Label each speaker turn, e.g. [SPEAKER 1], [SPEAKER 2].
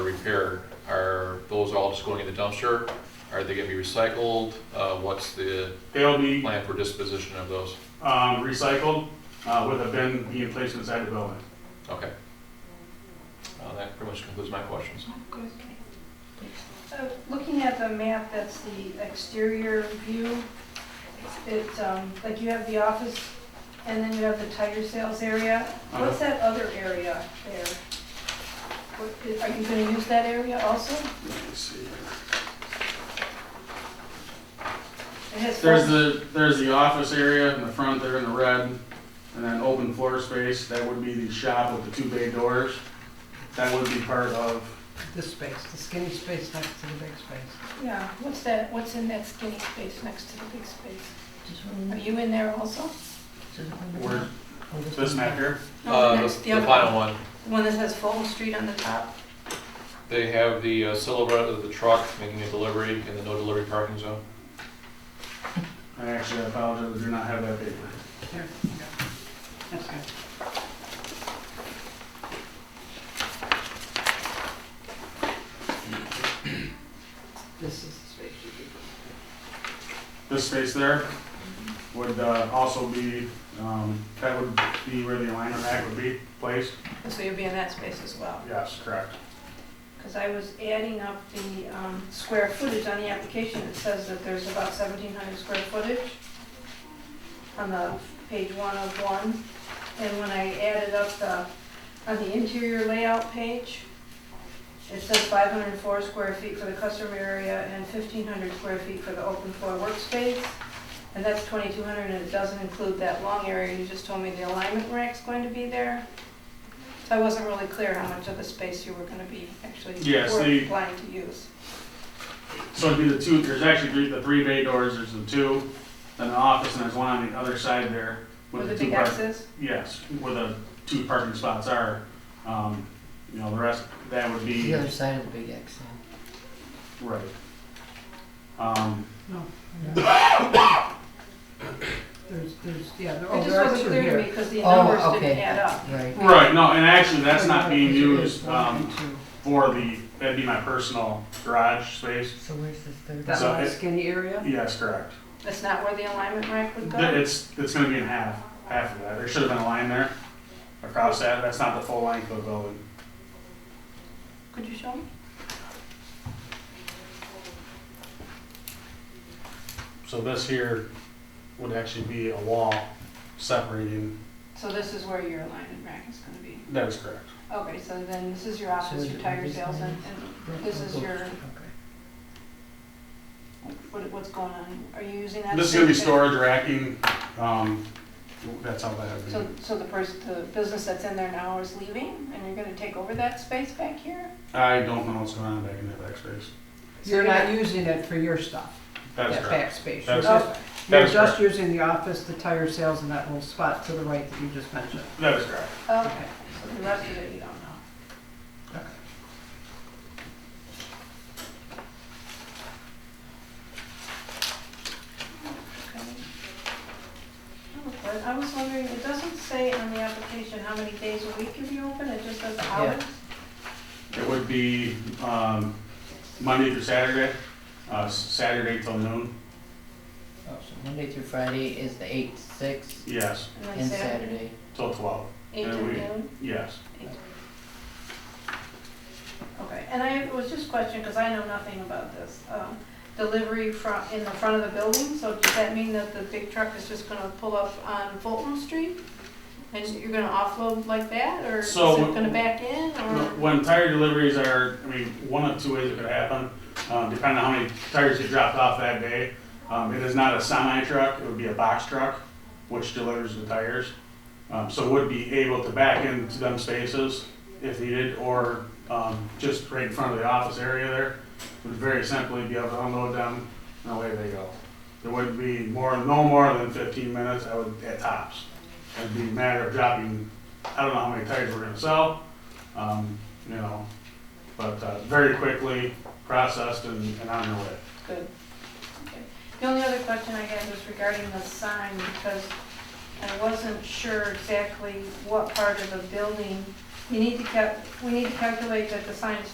[SPEAKER 1] repair, are those all just going in the dumpster? Are they gonna be recycled? Uh, what's the
[SPEAKER 2] They'll be
[SPEAKER 1] plan for disposition of those?
[SPEAKER 2] um, recycled uh, with a bin being placed inside the building.
[SPEAKER 1] Okay. Uh, that pretty much concludes my questions.
[SPEAKER 3] Uh, Looking at the map, that's the exterior view. It's, um, like you have the office, and then you have the tire sales area.
[SPEAKER 1] Uh-huh.
[SPEAKER 3] What's that other area there? What- Are you gonna use that area also?
[SPEAKER 2] Let me see here.
[SPEAKER 3] It has
[SPEAKER 2] There's
[SPEAKER 3] four-
[SPEAKER 2] the, there's the office area in the front there in the red, and then open floor space, that would be the shop with the two bay doors. That would be part of,
[SPEAKER 4] This space, the skinny space next to the big space.
[SPEAKER 3] Yeah, what's that, what's in that skinny space next to the big space?
[SPEAKER 4] Just
[SPEAKER 3] Are
[SPEAKER 4] one-
[SPEAKER 3] you in there also?
[SPEAKER 4] just one-
[SPEAKER 2] where,
[SPEAKER 4] oh, this
[SPEAKER 2] this
[SPEAKER 4] one.
[SPEAKER 2] map here,
[SPEAKER 3] No,
[SPEAKER 1] Uh,
[SPEAKER 3] next-
[SPEAKER 1] the
[SPEAKER 3] other
[SPEAKER 1] final one,
[SPEAKER 3] The one that has Fulton Street on the top?
[SPEAKER 1] they have the uh, silhouette of the truck making a delivery in the no delivery parking zone.
[SPEAKER 2] I actually apologize, I do not have that paper.
[SPEAKER 4] There, yeah. That's good. This is the space you could.
[SPEAKER 2] This space there would uh, also be, um, that would be where the aligner rack would be placed?
[SPEAKER 3] So you'll be in that space as well?
[SPEAKER 2] Yes, correct.
[SPEAKER 3] Because I was adding up the um, square footage on the application, it says that there's about 1,700 square footage on the page one of one, and when I added up the, on the interior layout page, it says 504 square feet for the customer area and 1,500 square feet for the open floor workspace, and that's 2,200, and it doesn't include that long area, you just told me the alignment rack's going to be there. So I wasn't really clear how much of the space you were gonna be actually,
[SPEAKER 2] Yes, the-
[SPEAKER 3] were planning to use.
[SPEAKER 2] So it'd be the two, there's actually three, the three bay doors, there's the two, then the office, and there's one on the other side there.
[SPEAKER 3] With
[SPEAKER 2] the
[SPEAKER 3] the
[SPEAKER 2] two
[SPEAKER 3] big
[SPEAKER 2] park-
[SPEAKER 3] X's?
[SPEAKER 2] Yes, where the two parking spots are, um, you know, the rest, that would be,
[SPEAKER 4] The other side of the big X, yeah.
[SPEAKER 2] right. Um,
[SPEAKER 4] There's, there's, yeah, there, oh,
[SPEAKER 3] It just
[SPEAKER 4] there are
[SPEAKER 3] wasn't
[SPEAKER 4] two
[SPEAKER 3] clear to me
[SPEAKER 4] here.
[SPEAKER 3] because the
[SPEAKER 4] Oh,
[SPEAKER 3] numbers didn't
[SPEAKER 4] okay.
[SPEAKER 3] add up.
[SPEAKER 4] Right.
[SPEAKER 2] right, no, and actually, that's not being
[SPEAKER 4] It is
[SPEAKER 2] used,
[SPEAKER 4] one
[SPEAKER 2] um,
[SPEAKER 4] and two.
[SPEAKER 2] for the, that'd be my personal garage space.
[SPEAKER 4] So where's this third?
[SPEAKER 2] That So little it-
[SPEAKER 4] skinny area?
[SPEAKER 2] Yes, correct.
[SPEAKER 3] That's not where the alignment rack would
[SPEAKER 2] Th-
[SPEAKER 3] go?
[SPEAKER 2] It's, it's gonna be in half, half of that, there should have been a line there across that, that's not the full length of the building.
[SPEAKER 3] Could you show me?
[SPEAKER 2] So this here would actually be a wall separating,
[SPEAKER 3] So this is where your alignment rack is gonna be.
[SPEAKER 2] that is correct.
[SPEAKER 3] Okay, so then this is your
[SPEAKER 4] So
[SPEAKER 3] office,
[SPEAKER 4] it
[SPEAKER 3] your
[SPEAKER 4] would
[SPEAKER 3] tire
[SPEAKER 4] be
[SPEAKER 3] sales, and, and this is your,
[SPEAKER 4] Okay.
[SPEAKER 3] what, what's going on? Are you using that?
[SPEAKER 2] This is gonna be
[SPEAKER 3] space?
[SPEAKER 2] storage racking, um, that's how that would
[SPEAKER 3] So,
[SPEAKER 2] be.
[SPEAKER 3] so the person, the business that's in there now is leaving, and you're gonna take over that space back here?
[SPEAKER 2] I don't know what's going on back in that back space.
[SPEAKER 4] You're not using it for your stuff,
[SPEAKER 2] That is
[SPEAKER 4] that
[SPEAKER 2] correct.
[SPEAKER 4] back space.
[SPEAKER 2] That
[SPEAKER 4] You're
[SPEAKER 2] is
[SPEAKER 4] just-
[SPEAKER 2] That
[SPEAKER 4] you're
[SPEAKER 2] is
[SPEAKER 4] just using the office, the tire sales, and that little spot to the right that you just mentioned.
[SPEAKER 2] That is correct.
[SPEAKER 3] Okay, so the rest of it you don't know. Okay. Okay, I was wondering, it doesn't say on the application how many days a week you be open, it just says hours?
[SPEAKER 2] It would be, um, Monday through Saturday, uh, s- Saturday till noon,
[SPEAKER 5] Oh, so Monday through Friday is the eight to six
[SPEAKER 2] yes,
[SPEAKER 3] then
[SPEAKER 5] and Saturday.
[SPEAKER 2] till twelve,
[SPEAKER 3] Eight
[SPEAKER 2] And
[SPEAKER 3] to
[SPEAKER 2] a week.
[SPEAKER 3] noon?
[SPEAKER 2] yes.
[SPEAKER 3] Okay, and I was just questioning, because I know nothing about this, um, delivery from, in the front of the building, so does that mean that the big truck is just gonna pull up on Fulton Street? And you're gonna offload like that, or is it
[SPEAKER 2] So-
[SPEAKER 3] gonna back in, or?
[SPEAKER 2] When tire deliveries are, I mean, one of two ways it could happen, um, depending on how many tires you dropped off that day. Um, it is not a semi truck, it would be a box truck, which delivers the tires. Um, so would be able to back into them spaces if needed, or, um, just right in front of the office area there. Would very simply be able to unload them and away they go. There would be more, no more than fifteen minutes, I would, at tops. It'd be a matter of dropping, I don't know how many tires we're gonna sell, um, you know, but uh, very quickly processed and, and on their way.
[SPEAKER 3] Good. Okay. The only other question I had was regarding the sign, because I wasn't sure exactly what part of the building. You need to cal, we need to calculate that the sign is